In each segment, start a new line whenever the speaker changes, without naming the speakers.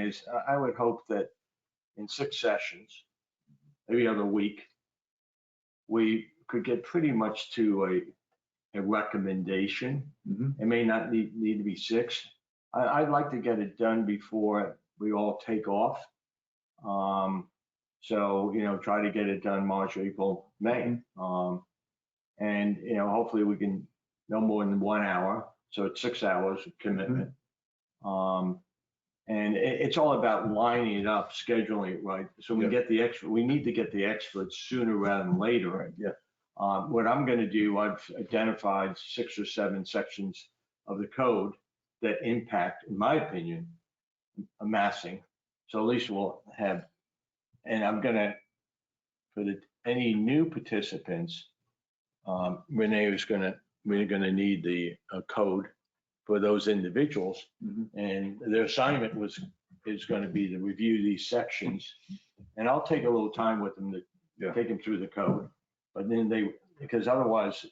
case, I, I would hope that in six sessions, every other week, we could get pretty much to a, a recommendation.
Mm-hmm.
Mhm.
It may not need, need to be six. I, I'd like to get it done before we all take off. Um, so, you know, try to get it done March, April, May. Um, and, you know, hopefully we can, no more than one hour, so it's six hours of commitment. Um, and it, it's all about lining it up, scheduling it right. So we
Yeah.
get the expert, we need to get the experts sooner rather than later.
Right, yeah.
Um, what I'm gonna do, I've identified six or seven sections of the code that impact, in my opinion, amassing. So at least we'll have, and I'm gonna, for the, any new participants, um, Renee is gonna, we're gonna need the uh, code for those individuals.
Mhm.
And their assignment was, is gonna be to review these sections. And I'll take a little time with them to
Yeah.
take them through the code. But then they, because otherwise,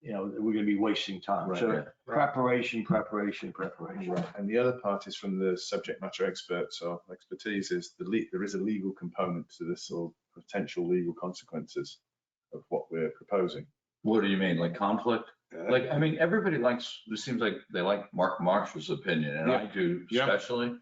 you know, we're gonna be wasting time.
Right,
So
yeah.
preparation, preparation, preparation.
Right, And the other part is from the subject matter experts or expertise is the le- there is a legal component to this or potential legal consequences of what we're proposing.
What do you mean, like conflict?
Uh,
Like, I mean, everybody likes, it seems like they like Mark Marsh's opinion, and I do
Yeah.
especially.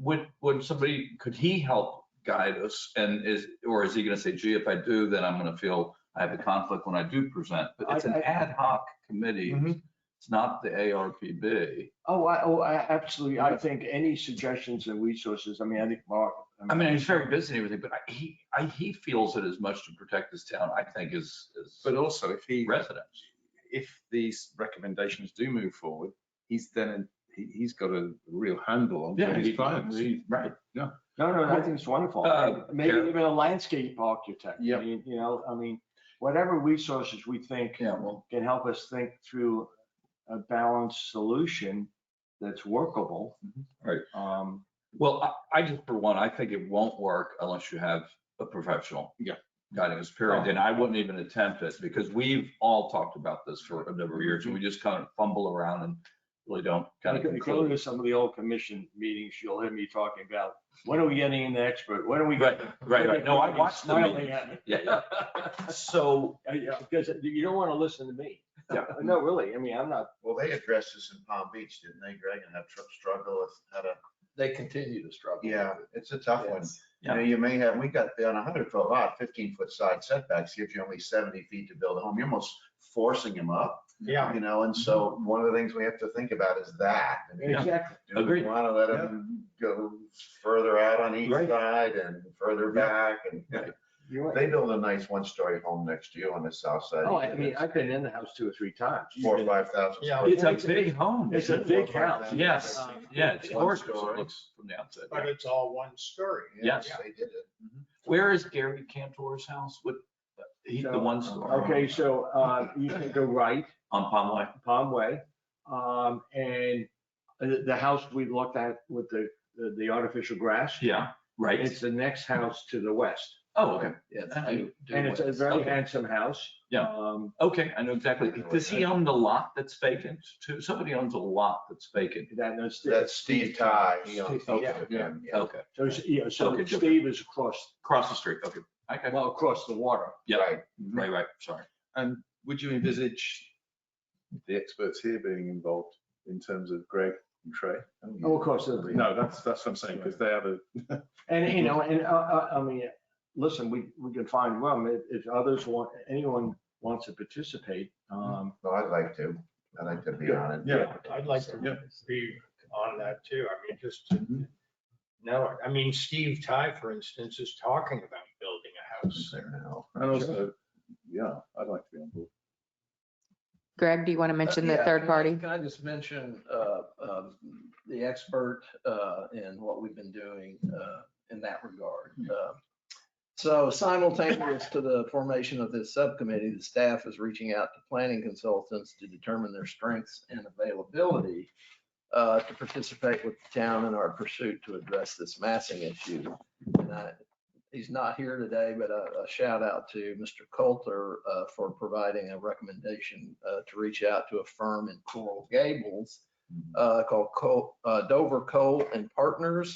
Would, would somebody, could he help guide us? And is, or is he gonna say, gee, if I do, then I'm gonna feel I have a conflict when I do present? But it's an
I- I-
ad hoc committee.
Mhm.
It's not the ARPB.
Oh, I, oh, I absolutely. I think any suggestions and resources, I mean, I think Mark.
I mean, he's very busy and everything, but I- he, I, he feels it as much to protect his town, I think, as, as
But also if he,
residents.
if these recommendations do move forward, he's then, he, he's got a real handle on his clients.
Right.
No, no, I think it's wonderful.
Uh,
Maybe
Karen.
even a landscape architect. I
Yep.
mean, You know, I mean, whatever resources we think
Yeah, well,
can help us think through a balanced solution that's workable.
Mm-hmm. Right.
Um,
Well, I, I just, for one, I think it won't work unless you have a professional.
Yeah.
Guiding us period, and I wouldn't even attempt it because we've all talked about this for a number of years and we just kind of fumble around and really don't kind of
Go go to
conclude.
some of the old commission meetings, you'll hear me talking about, when are we getting in the expert? When are we?
Right,
getting-
right, right. No, I watched the
Smiling
meetings.
at me.
Yeah, yeah. So,
Uh, Yeah, because you don't want to listen to me.
Yeah.
No, really, I mean, I'm not,
Well, they addressed this in Palm Beach, didn't they, Greg, and that tr- struggle with how to,
they continue to struggle. with
yeah,
it.
it's a tough one. You know, you may have, we got on a hundred foot lot, fifteen foot side setbacks, gives you only seventy feet to build a home, you're almost forcing them up.
Yeah.
You know, and so one of the things we have to think about is that. I mean,
exactly.
Do we
Agreed.
wanna let
um,
them go further out on each
Right.
side and further back and,
You're right.
they build a nice one story home next to you on the south side.
Oh, I I mean, I've been in the house two or three times.
Four, or five thousand.
Yeah.
it's a big home.
It's a big house.
Yes,
Um,
yeah, it's
One
gorgeous. It
story.
looks from the outside.
But it's all one story.
Yes.
They did it.
Where is Gary Cantor's house? What, he, the
So,
one store
Okay, so, uh, you can go right,
on Palm Way?
Palm Way, um, and uh, the, the house we looked at with the, the- the artificial grass.
Yeah, right.
It's the next house to the west,
Oh, okay.
Yeah. it's
I-
do- do
and it's
what-
a very
Okay.
handsome house.
Yeah.
Um,
Okay, I know exactly. Does he own the lot that's vacant too? Somebody owns a lot that's vacant.
that, that's.
That's Steve Ty. he owns
Steve,
both
yeah.
of them, yeah.
Okay,
So, it's- yeah, so
Okay, different.
Steve is across,
across the street. Okay. Okay,
well, across the water.
Yeah.
Right.
right, right, sorry.
And would you envisage the experts here being involved in terms of Greg and Trey?
Oh, of course, it'll be.
No, that's, that's what I'm saying, because they have a,
And, you know, and, uh, uh, I mean, listen, we, we can find room, if, if others want, anyone wants to participate, um,
Well, I'd like to, I'd like to be
Yeah,
on it.
yeah.
I'd like
Yeah.
to be on that too. I mean, just to know it. I mean, Steve Ty, for instance, is talking about building a house there.
and also, yeah, I'd like to be on board.
Greg, do you want to mention the
Uh, yeah,
third party?
Can I just mention uh, um, the expert uh, in what we've been doing uh, in that regard? Uh, So simultaneous to the formation of this subcommittee, the staff is reaching out to planning consultants to determine their strengths and availability uh, to participate with the town in our pursuit to address this massing issue. And I- He's not here today, but a a shout out to Mr. Coulter uh, for providing a recommendation uh, to reach out to a firm in Coral Gables uh, called Co- uh, Dover Coal and Partners.